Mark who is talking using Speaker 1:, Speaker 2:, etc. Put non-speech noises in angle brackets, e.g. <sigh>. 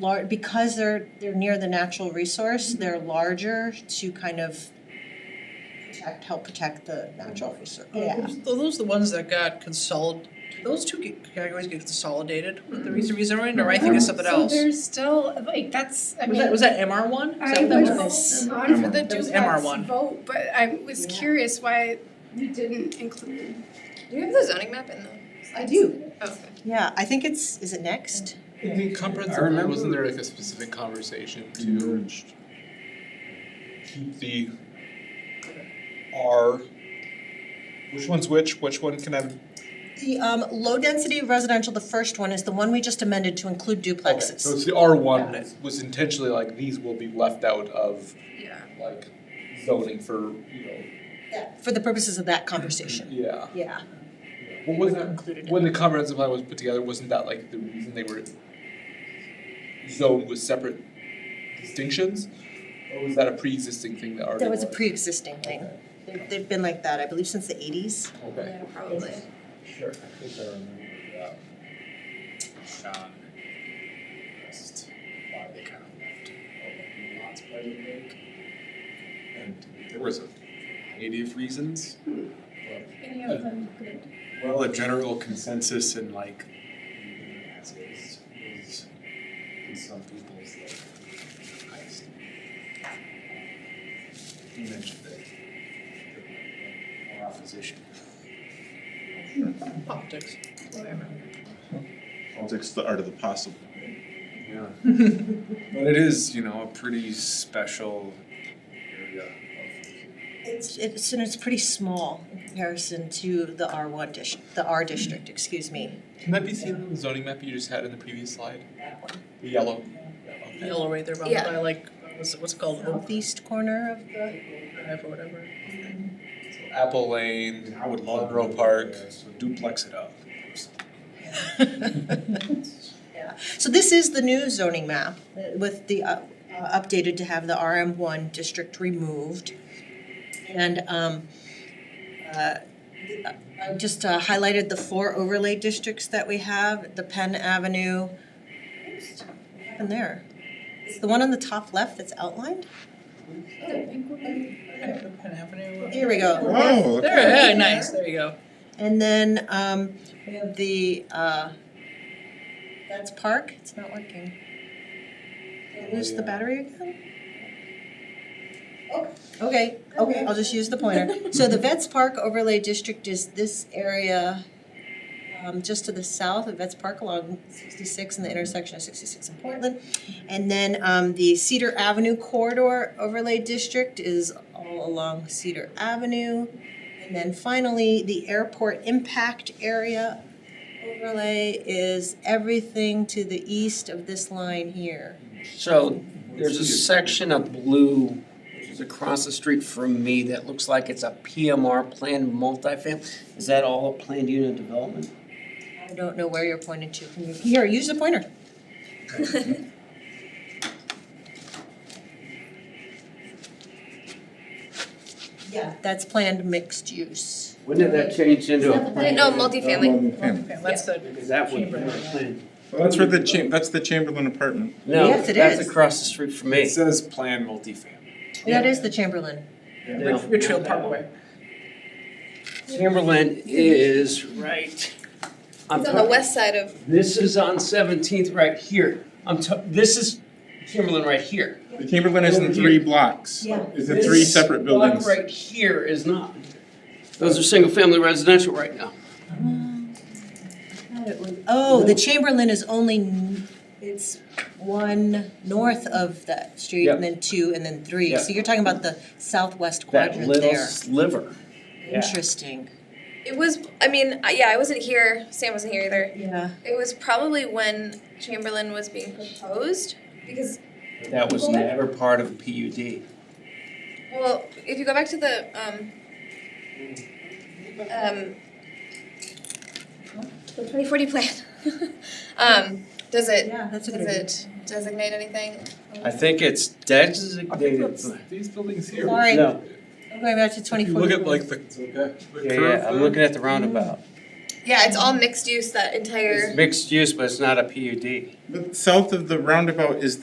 Speaker 1: lar- because they're they're near the natural resource, they're larger to kind of protect, help protect the natural resource, yeah.
Speaker 2: Those- Those are the ones that got consolid, those two get- categories get consolidated with the reason reason or I think it's something else.
Speaker 3: Oh, So there's still, like, that's, I
Speaker 2: Was
Speaker 3: mean.
Speaker 2: that, was that MR one? Is
Speaker 3: I
Speaker 2: that what that was?
Speaker 3: was on for the
Speaker 2: That was
Speaker 3: duplex
Speaker 2: MR1.
Speaker 3: vote, but I was
Speaker 1: Yeah.
Speaker 3: curious why we didn't include.
Speaker 4: Do you have the zoning map in the?
Speaker 1: I do.
Speaker 4: Oh, okay.
Speaker 1: Yeah, I think it's, is it next?
Speaker 5: The comprehensive,
Speaker 6: I
Speaker 5: plan,
Speaker 6: remember-
Speaker 5: wasn't there like a specific conversation to
Speaker 6: merged
Speaker 5: keep the R? Which one's which, which one can I,
Speaker 1: The um low density residential, the first one is the one we just amended to include
Speaker 5: okay,
Speaker 1: duplexes.
Speaker 5: so it's the R one that was intentionally like, these will be left out of
Speaker 4: Yeah.
Speaker 5: like zoning for, you know,
Speaker 1: Yeah, For the purposes of that conversation,
Speaker 5: yeah.
Speaker 1: yeah.
Speaker 5: What was that, when the comprehensive plan was put together, wasn't that like the reason they were zoned with separate distinctions? Or was that a pre-existing thing that already
Speaker 1: That was
Speaker 5: was?
Speaker 1: a pre-existing thing. They've they've been like that, I believe, since the eighties.
Speaker 5: Okay,
Speaker 4: Yeah, probably.
Speaker 5: sure, I think I remember, yeah.
Speaker 6: uh, Sean asked why they kind of left open lots by the lake. And there was a variety of reasons.
Speaker 3: Any
Speaker 6: of
Speaker 3: them
Speaker 6: Well, a general consensus in like leaving it as is is in some people's like highest. You mentioned that there might be more opposition.
Speaker 2: Optics.
Speaker 7: Politics, the art of the possible.
Speaker 6: Yeah. But it is, you know, a pretty special area of
Speaker 1: It's it's and it's pretty small in comparison to the R one dish, the R district, excuse me.
Speaker 5: Can that be seen on the zoning map you just had in the previous slide? The yellow. Okay.
Speaker 2: Yellow right there, by
Speaker 4: Yeah.
Speaker 2: by like, what's it, what's it called, Oak
Speaker 1: Southeast corner of the
Speaker 2: Drive or whatever. <laughs>
Speaker 5: Apple Lane.
Speaker 6: I would love
Speaker 5: Monroe Park.
Speaker 6: Duplex it up.
Speaker 1: <laughs> So this is the new zoning map uh, with the, uh, uh, updated to have the RM one district removed. And, um, uh, I just uh, highlighted the four overlay districts that we have, the Penn Avenue. Oops, what happened there? It's the one on the top left that's outlined?
Speaker 2: Penn Avenue.
Speaker 1: Here we go.
Speaker 7: Wow.
Speaker 2: There, yeah, nice, there you go.
Speaker 1: And then, um, we have the, uh, that's Park, it's not working. Did I lose the battery again? Oh, Okay, okay, I'll just use the pointer. So the Vets Park overlay district is this area, um, just to the south of Vets Park along sixty-six and the intersection of sixty-six and Portland. And then, um, the Cedar Avenue corridor overlay district is all along Cedar Avenue. And then finally, the airport impact area overlay is everything to the east of this line here.
Speaker 8: So there's a section of blue, which is across the street from me, that looks like it's a PMR planned multifamily. Is that all a planned unit development?
Speaker 1: I don't know where you're pointing to. Can you- Here, use the pointer. <laughs> Yeah, that's planned mixed use.
Speaker 8: When did that change into a planned?
Speaker 4: No, multifamily.
Speaker 2: Okay, that's the,
Speaker 8: Because that would be a planned.
Speaker 7: That's where the cha- that's the Chamberlain apartment.
Speaker 8: No,
Speaker 1: Yes, it
Speaker 8: that's
Speaker 1: is.
Speaker 8: across the street from
Speaker 6: It
Speaker 8: me.
Speaker 6: says plan multifamily.
Speaker 1: That is the Chamberlain.
Speaker 8: No.
Speaker 2: Rich Hill Parkway.
Speaker 8: Chamberlain is right.
Speaker 4: It's
Speaker 8: I'm
Speaker 4: on the
Speaker 8: talking-
Speaker 4: west side of,
Speaker 8: This is on Seventeenth right here. I'm ta- this is Chamberlain right here.
Speaker 7: The Chamberlain is in three blocks.
Speaker 1: Yeah.
Speaker 7: It's in three
Speaker 8: This
Speaker 7: separate buildings.
Speaker 8: Block right here is not. Those are single-family residential right now.
Speaker 1: Oh, the Chamberlain is only, n- it's one north of that street and then two and then three. So you're talking about the southwest
Speaker 8: That
Speaker 1: quadrant
Speaker 8: little
Speaker 1: there.
Speaker 8: sliver. yeah.
Speaker 1: Interesting.
Speaker 4: it was, I mean, I- yeah, I wasn't here, Sam wasn't here either.
Speaker 1: Yeah.
Speaker 4: It was probably when Chamberlain was being proposed, because,
Speaker 8: That was
Speaker 4: Well, that-
Speaker 8: never part of PUD.
Speaker 4: well, if you go back to the, um, um, the twenty forty plan, <laughs> um, does it,
Speaker 1: Yeah, that's
Speaker 4: does
Speaker 1: a good idea.
Speaker 4: it designate anything?
Speaker 8: I think it's designated.
Speaker 5: These buildings here.
Speaker 1: Sorry, I'm
Speaker 8: No,
Speaker 1: going back to
Speaker 5: If
Speaker 1: twenty
Speaker 5: you
Speaker 1: four.
Speaker 5: look at like the
Speaker 6: It's okay.
Speaker 5: the
Speaker 8: yeah,
Speaker 5: curve
Speaker 8: yeah, I'm
Speaker 5: there,
Speaker 8: looking at the roundabout.
Speaker 4: Yeah, it's all mixed use, that entire.
Speaker 8: It's mixed use, but it's not a PUD.
Speaker 7: But south of the roundabout is